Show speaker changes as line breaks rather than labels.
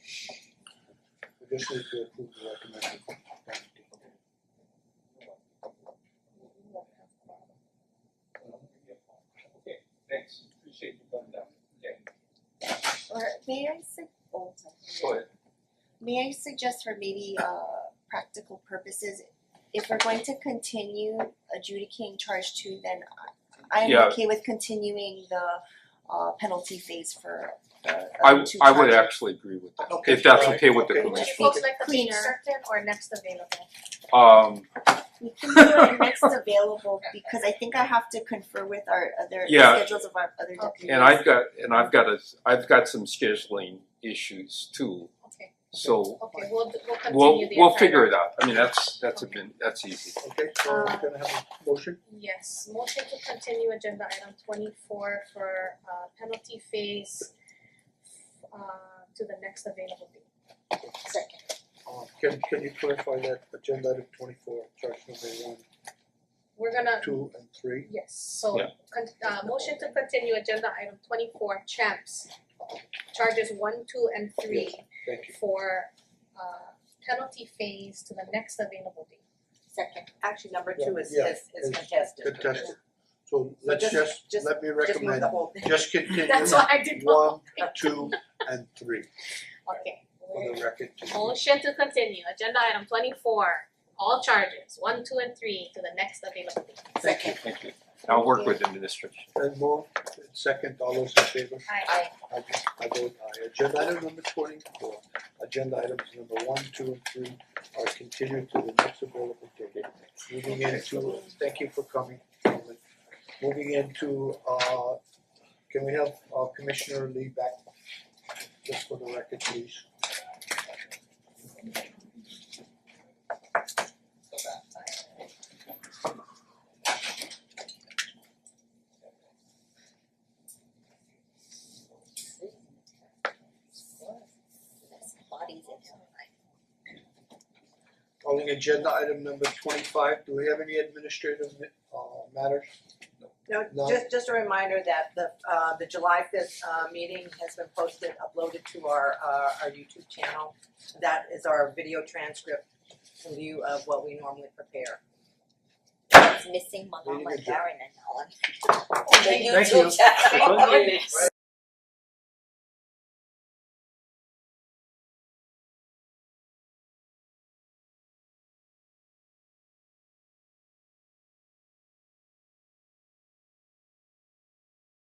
Conditionally to approve the recommended.
Okay, thanks, appreciate you coming down, okay,
Or may I sug- oh, sorry.
go ahead.
May I suggest for maybe uh practical purposes, if we're going to continue adjudicating charge two, then I I'm
Yeah.
okay with continuing the uh penalty phase for the
I
other
w-
two
I would
charges.
actually agree with that,
Okay,
if that's
alright,
okay with the
okay.
Would
commission.
you folks like the date
Cleaner.
certain or next available?
Um
We can do it next available because I think I have to confer with our other the
Yeah.
schedules of our other deputies.
and I've got and I've got a I've got some scheduling issues too,
Okay,
so
okay, we'll d- we'll
we'll
continue the
we'll
entire-
figure it out. I mean, that's that's a been that's easy.
Okay, so we're gonna have a motion,
Yes, motion to continue agenda item twenty four for uh penalty phase uh to the next available date. Second.
uh can can you clarify that agenda item twenty four, charge number one,
We're gonna,
two and three?
yes, so
Yeah.
con- uh motion to continue agenda item twenty four champs charges one, two and three
Thank you.
for uh penalty phase to the next available date.
Second, actually, number two is
Yeah,
is is
it's
contested.
Contested, so let's
just-
just,
just-
let me
Just move
recommend,
the whole thing.
just continue
That's why I did not.
one, two and three
Okay.
for the record to
Motion to continue, agenda item twenty four, all charges, one, two and three to the next available date.
Thank you.
Thank you. I'll work with administration.
And move, second, all those in favor?
Aye.
I I vote aye. Agenda item number twenty four, agenda items number one, two and three are continued to the next available date. Moving into, thank you for coming, gentlemen. Moving into uh, can we have uh Commissioner Lee back? Just for the record, please.
Bodies in there.
Calling agenda item number twenty five, do we have any administrative uh matters? No.
No, just just a reminder that the uh the July fifth uh meeting has been posted, uploaded to our uh our YouTube channel. That is our video transcript in lieu of what we normally prepare.
Meeting adjourned.
Thank you.
Thank you.
YouTube channel.
Thank you.